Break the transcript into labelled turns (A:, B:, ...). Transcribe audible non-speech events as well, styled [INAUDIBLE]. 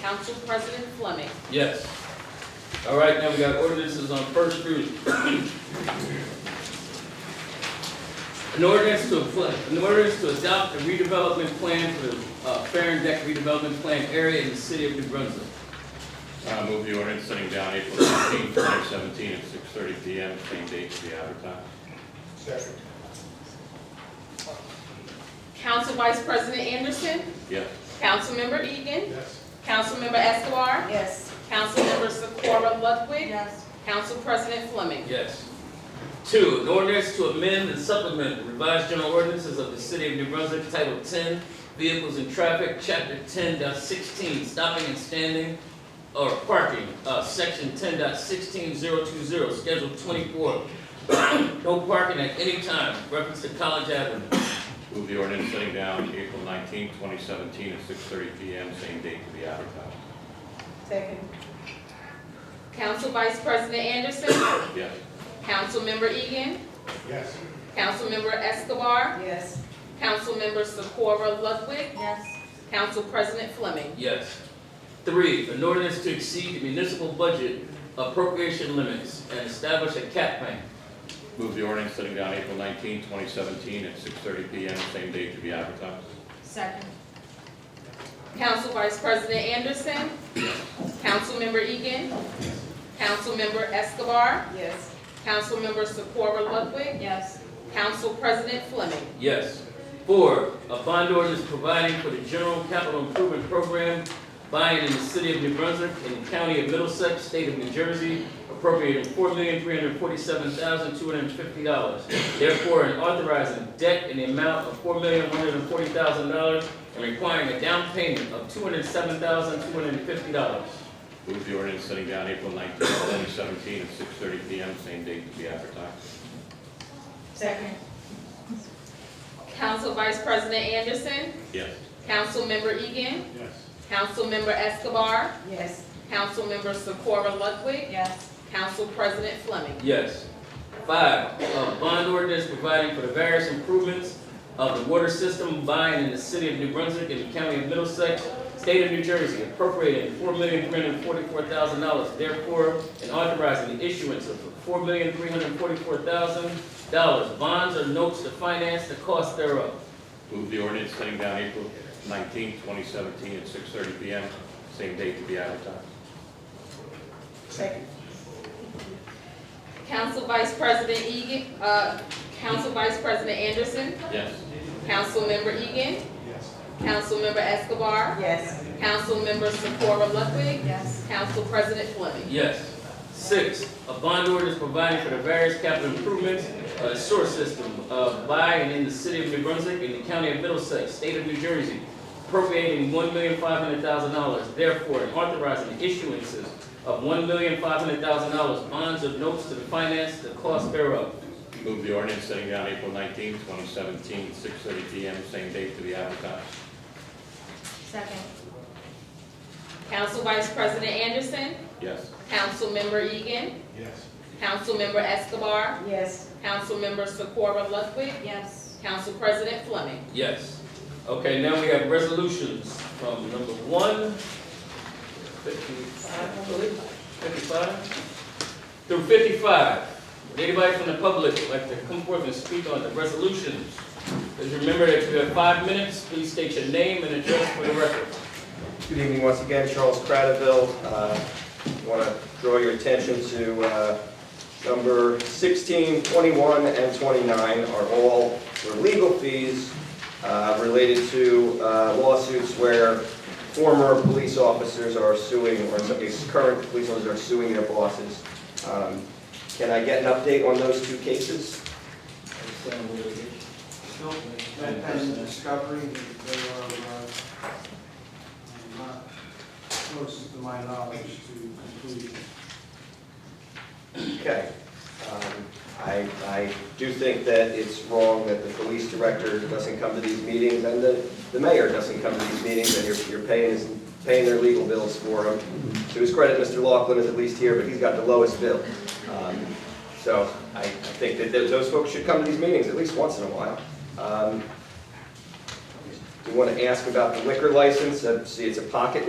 A: Council President Fleming.
B: Yes. All right, now we got ordinances on first reading. An ordinance to, affl- an ordinance to adopt a redevelopment plan for the uh, Farron Deck redevelopment plan area in the city of New Brunswick.
C: Uh, move the ordinance setting down April seventeenth, twenty seventeen, at six thirty P M, same date to be advertised.
D: Second.
A: Council Vice President Anderson.
C: Yes.
A: Councilmember Egan.
D: Yes.
A: Councilmember Escobar.
E: Yes.
A: Councilmember Socorro Ludwig.
E: Yes.
A: Council President Fleming.
B: Yes. Two, an ordinance to amend and supplement revised general ordinances of the city of New Brunswick, Title ten, Vehicles and Traffic, Chapter ten dot sixteen, Stopping and Standing or Parking, uh, Section ten dot sixteen zero two zero, Schedule twenty-four. [COUGHS] No parking at any time, reference to College Avenue.
C: Move the ordinance setting down April nineteenth, twenty seventeen, at six thirty P M, same date to be advertised.
E: Second.
A: Council Vice President Anderson.
C: Yes.
A: Councilmember Egan.
D: Yes.
A: Councilmember Escobar.
E: Yes.
A: Councilmember Socorro Ludwig.
E: Yes.
A: Council President Fleming.
B: Yes. Three, an ordinance to exceed the municipal budget appropriation limits and establish a cap bank.
C: Move the ordinance setting down April nineteenth, twenty seventeen, at six thirty P M, same date to be advertised.
E: Second.
A: Council Vice President Anderson. Councilmember Egan. Councilmember Escobar.
E: Yes.
A: Councilmember Socorro Ludwig.
E: Yes.
A: Council President Fleming.
B: Yes. Four, a bond ordinance providing for the general capital improvement program buying in the city of New Brunswick and the county of Middlesex, state of New Jersey, appropriating four million three hundred forty-seven thousand two hundred and fifty dollars. Therefore, and authorizing debt in the amount of four million one hundred and forty thousand dollars and requiring a down payment of two hundred and seven thousand two hundred and fifty dollars.
C: Move the ordinance setting down April nineteenth, twenty seventeen, at six thirty P M, same date to be advertised.
E: Second.
A: Council Vice President Anderson.
C: Yes.
A: Councilmember Egan.
D: Yes.
A: Councilmember Escobar.
E: Yes.
A: Councilmember Socorro Ludwig.
E: Yes.
A: Council President Fleming.
B: Yes. Five, a bond ordinance providing for the various improvements of the water system by and in the city of New Brunswick and the county of Middlesex, state of New Jersey, appropriating four million three hundred forty-four thousand dollars therefore, and authorizing the issuance of four million three hundred forty-four thousand dollars bonds or notes to finance the cost thereof.
C: Move the ordinance setting down April nineteenth, twenty seventeen, at six thirty P M, same date to be advertised.
E: Second.
A: Council Vice President Egan, uh, Council Vice President Anderson.
C: Yes.
A: Councilmember Egan.
D: Yes.
A: Councilmember Escobar.
E: Yes.
A: Councilmember Socorro Ludwig.
E: Yes.
A: Council President Fleming.
B: Yes. Six, a bond ordinance providing for the various capital improvements, uh, sewer system, uh, by and in the city of New Brunswick and the county of Middlesex, state of New Jersey, appropriating one million five hundred thousand dollars, therefore, and authorizing the issuances of one million five hundred thousand dollars bonds or notes to finance the cost thereof.
C: Move the ordinance setting down April nineteenth, twenty seventeen, six thirty P M, same date to be advertised.
E: Second.
A: Council Vice President Anderson.
C: Yes.
A: Councilmember Egan.
D: Yes.
A: Councilmember Escobar.
E: Yes.
A: Councilmember Socorro Ludwig.
E: Yes.
A: Council President Fleming.
B: Yes. Okay, now we have resolutions from number one, fifty-five, I believe, fifty-five, through fifty-five. Would anybody from the public like to come forth and speak on the resolutions? Please remember that if you have five minutes, please state your name and address for the record.
F: Good evening once again, Charles Cradaville. Uh, Want to draw your attention to uh, number 16, 21, and 29 are all for legal fees uh, related to uh, lawsuits where former police officers are suing, or in some cases, current police officers are suing their bosses. Um, Can I get an update on those two cases?
G: No, that pending discovery, they are uh, not close to my knowledge to completion.
F: Okay. Um, I, I do think that it's wrong that the police director doesn't come to these meetings, and the, the mayor doesn't come to these meetings, and you're, you're paying, his- paying their legal bills for them. To his credit, Mr. Laughlin is at least here, but he's got the lowest bill. Um, So I I think that th- those folks should come to these meetings at least once in a while. Um, Do you want to ask about the liquor license? Uh, See, it's a pocket